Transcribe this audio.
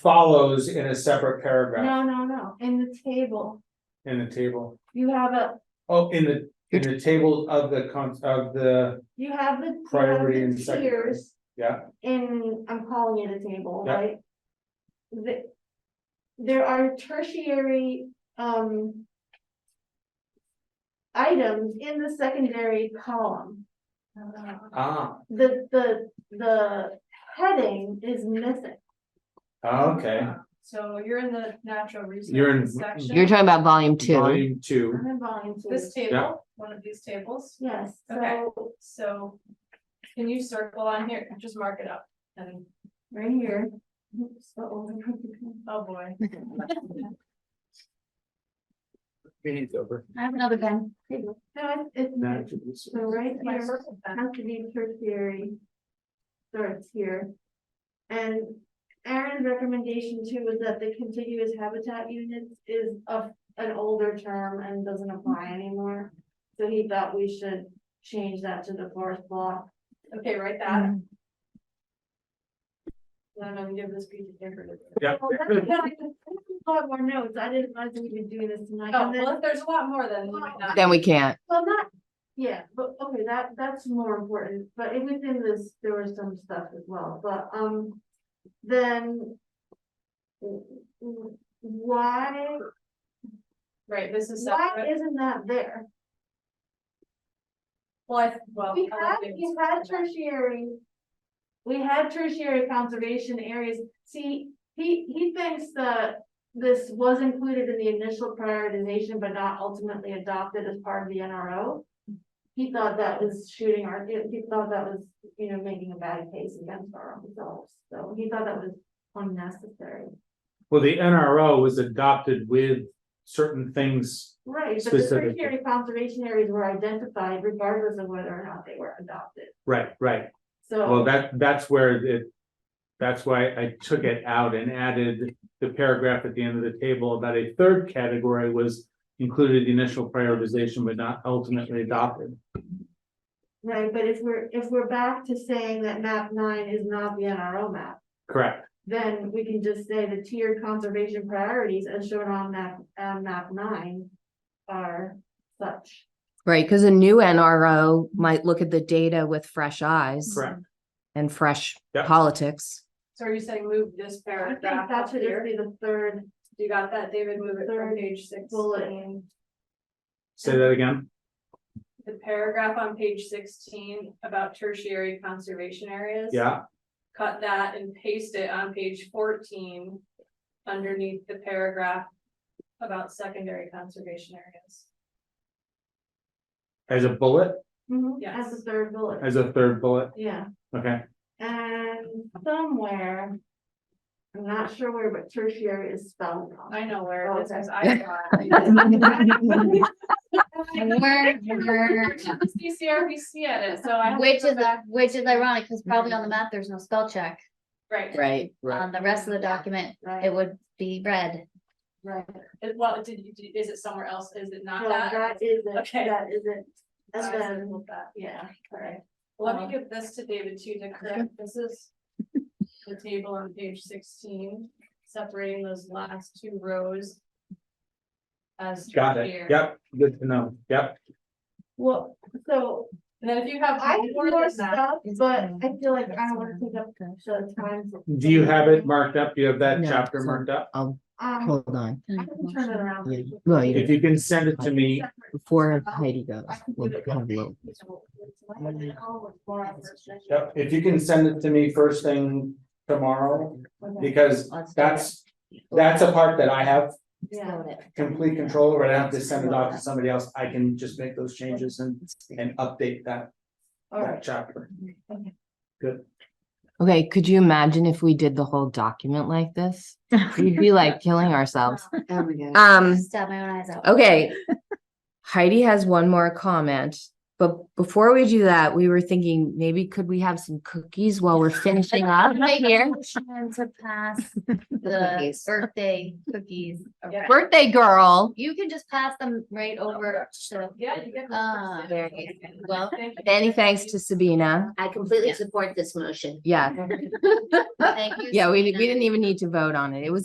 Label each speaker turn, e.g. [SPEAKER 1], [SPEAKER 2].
[SPEAKER 1] follows in a separate paragraph
[SPEAKER 2] No, no, no, in the table,
[SPEAKER 1] in the table.
[SPEAKER 2] you have a,
[SPEAKER 1] Oh, in the, in the table of the con, of the,
[SPEAKER 2] you have the. you have
[SPEAKER 1] Priority
[SPEAKER 2] the
[SPEAKER 1] and secondary.
[SPEAKER 2] tiers
[SPEAKER 1] yeah,
[SPEAKER 2] In, I'm calling it a table,
[SPEAKER 1] Yeah.
[SPEAKER 2] right? The. There are tertiary, um. Items in the secondary column.
[SPEAKER 1] ah,
[SPEAKER 2] The, the, the heading is missing.
[SPEAKER 1] ah, okay.
[SPEAKER 3] So you're in the natural
[SPEAKER 1] You're in-
[SPEAKER 3] resources section,
[SPEAKER 4] You're talking about volume two.
[SPEAKER 1] Volume two,
[SPEAKER 2] I'm in volume two.
[SPEAKER 3] this
[SPEAKER 1] Yeah.
[SPEAKER 3] table, one of these tables,
[SPEAKER 2] Yes,
[SPEAKER 3] Okay.
[SPEAKER 2] so
[SPEAKER 3] so. Can you circle on here, just mark it up, and,
[SPEAKER 2] right here. Oops, uh-oh.
[SPEAKER 3] oh boy.
[SPEAKER 5] I have another pen.
[SPEAKER 2] No, it's, it's, so right
[SPEAKER 3] My
[SPEAKER 2] here.
[SPEAKER 3] circle pen.
[SPEAKER 2] has to be tertiary. Starts here. And Aaron's recommendation too was that the contiguous habitat units is of an older term and doesn't
[SPEAKER 3] Mm-hmm.
[SPEAKER 2] apply anymore. So he thought we should change that to the forest block.
[SPEAKER 3] Okay, write that, and then I'm gonna give this piece of paper to.
[SPEAKER 1] yeah.
[SPEAKER 2] Well, Oh, that's- I have more notes, I didn't realize we were doing this tonight.
[SPEAKER 3] Oh,
[SPEAKER 2] And then-
[SPEAKER 3] well, if there's a lot more than. you might not-
[SPEAKER 4] Then we can't.
[SPEAKER 2] Well, not, yeah, but okay, that that's more important, but it was in this, there was some stuff as well, but um, then. w- w- Why,
[SPEAKER 3] Right, this is
[SPEAKER 2] why
[SPEAKER 3] separate,
[SPEAKER 2] isn't that there?
[SPEAKER 3] well, I, well.
[SPEAKER 2] We
[SPEAKER 3] I
[SPEAKER 2] had,
[SPEAKER 3] like it.
[SPEAKER 2] we had tertiary. We had tertiary conservation areas, see, he he thinks that. This was included in the initial prioritization, but not ultimately adopted as part of the NRO. He thought that was shooting our, he he thought that was, you know, making a bad case against our own results, so he thought that was unnecessary.
[SPEAKER 1] Well, the NRO was adopted with certain things,
[SPEAKER 2] Right, but the
[SPEAKER 1] Specifically.
[SPEAKER 2] tertiary conservation areas were identified regardless of whether or not they were adopted,
[SPEAKER 1] right, right,
[SPEAKER 2] so.
[SPEAKER 1] well, that, that's where it. That's why I took it out and added the paragraph at the end of the table about a third category was included the initial prioritization but not ultimately adopted.
[SPEAKER 2] Right, but if we're, if we're back to saying that map nine is not the NRO map,
[SPEAKER 1] Correct,
[SPEAKER 2] then we can just say the tiered conservation priorities as shown on map, on map nine are such.
[SPEAKER 4] Right, because a new NRO might look at the data with fresh eyes
[SPEAKER 1] correct,
[SPEAKER 4] and fresh
[SPEAKER 1] Yep.
[SPEAKER 4] politics.
[SPEAKER 3] So are you saying move this
[SPEAKER 2] I think
[SPEAKER 3] paragraph
[SPEAKER 2] that
[SPEAKER 3] up
[SPEAKER 2] should
[SPEAKER 3] here?
[SPEAKER 2] just be the third
[SPEAKER 3] You got that, David, move it
[SPEAKER 2] Third
[SPEAKER 3] from page sixteen.
[SPEAKER 2] bullet.
[SPEAKER 1] say that again,
[SPEAKER 3] The paragraph on page sixteen about tertiary conservation areas.
[SPEAKER 1] yeah,
[SPEAKER 3] Cut that and paste it on page fourteen underneath the paragraph about secondary conservation areas.
[SPEAKER 1] as a bullet,
[SPEAKER 2] Mm-hmm, As the
[SPEAKER 3] Yes.
[SPEAKER 2] third bullet,
[SPEAKER 1] as a third bullet,
[SPEAKER 2] yeah,
[SPEAKER 1] okay.
[SPEAKER 2] and somewhere. I'm not sure where, but tertiary is spelled wrong.
[SPEAKER 3] I know where it is,
[SPEAKER 2] Okay.
[SPEAKER 3] 'cause I thought.
[SPEAKER 5] Where, where,
[SPEAKER 3] CCRBC at it, so I. have to
[SPEAKER 5] which
[SPEAKER 3] go
[SPEAKER 5] is,
[SPEAKER 3] back-
[SPEAKER 5] which is ironic, because probably on the map, there's no spell check.
[SPEAKER 3] Right,
[SPEAKER 4] Right.
[SPEAKER 1] Right.
[SPEAKER 5] On the rest of the document, it
[SPEAKER 2] Right,
[SPEAKER 5] would be red.
[SPEAKER 2] right,
[SPEAKER 3] It- well, did you, did- is it somewhere else, is it not
[SPEAKER 2] no,
[SPEAKER 3] that?
[SPEAKER 2] that is it,
[SPEAKER 3] Okay.
[SPEAKER 2] that is it.
[SPEAKER 3] I
[SPEAKER 2] And then,
[SPEAKER 3] circled that.
[SPEAKER 2] yeah,
[SPEAKER 3] Alright, let me give this to David too to correct, this is the table on page sixteen, separating those last two rows. As.
[SPEAKER 1] Got it,
[SPEAKER 3] here.
[SPEAKER 1] yep, good to know, yep,
[SPEAKER 2] well, so
[SPEAKER 3] And then if you have.
[SPEAKER 2] I have
[SPEAKER 3] more than
[SPEAKER 2] more
[SPEAKER 3] that-
[SPEAKER 2] stuff, but I feel like I don't wanna
[SPEAKER 4] Um,
[SPEAKER 2] take up the time. for-
[SPEAKER 1] do you have it marked up, do you have that
[SPEAKER 4] No,
[SPEAKER 1] chapter
[SPEAKER 4] it's
[SPEAKER 1] marked up?
[SPEAKER 2] Um,
[SPEAKER 4] Hold on.
[SPEAKER 2] I can turn it around.
[SPEAKER 4] Yeah, well, you
[SPEAKER 1] If you can send it to me,
[SPEAKER 2] Separate.
[SPEAKER 4] Before Heidi goes.
[SPEAKER 2] I can
[SPEAKER 4] we'll
[SPEAKER 2] give it
[SPEAKER 4] have a
[SPEAKER 2] to
[SPEAKER 4] little-
[SPEAKER 2] you. So, it's like an hour before I first check it.
[SPEAKER 1] yep, if you can send it to me first thing tomorrow,
[SPEAKER 2] Okay,
[SPEAKER 1] because
[SPEAKER 5] Let's do it.
[SPEAKER 1] that's. That's a part that I have
[SPEAKER 2] Yeah,
[SPEAKER 1] complete control over, I don't have to send it off to somebody else, I can just make those changes and, and update that,
[SPEAKER 2] all
[SPEAKER 1] that
[SPEAKER 2] right,
[SPEAKER 1] chapter.
[SPEAKER 4] Okay, could you imagine if we did the whole document like this? We'd be like killing ourselves.
[SPEAKER 6] Oh my God.
[SPEAKER 4] Um,
[SPEAKER 5] Stab my own eyes out.
[SPEAKER 4] okay. Heidi has one more comment, But before we do that, we were thinking maybe could we have some cookies while we're finishing up here?
[SPEAKER 5] Motion To pass the
[SPEAKER 4] Cookies.
[SPEAKER 5] birthday cookies.
[SPEAKER 3] Yeah.
[SPEAKER 4] Birthday girl.
[SPEAKER 5] You can just pass them right over to.
[SPEAKER 3] Yeah, you get. the
[SPEAKER 5] Ah,
[SPEAKER 3] first
[SPEAKER 5] very
[SPEAKER 3] sip.
[SPEAKER 5] good. Well,
[SPEAKER 3] Thank you.
[SPEAKER 4] Many thanks to Sabina.
[SPEAKER 6] I completely
[SPEAKER 5] Yeah.
[SPEAKER 6] support this motion.
[SPEAKER 4] Yeah,
[SPEAKER 5] thank you.
[SPEAKER 4] yeah, we, we
[SPEAKER 5] Sabrina.
[SPEAKER 4] didn't even need to vote on it. It was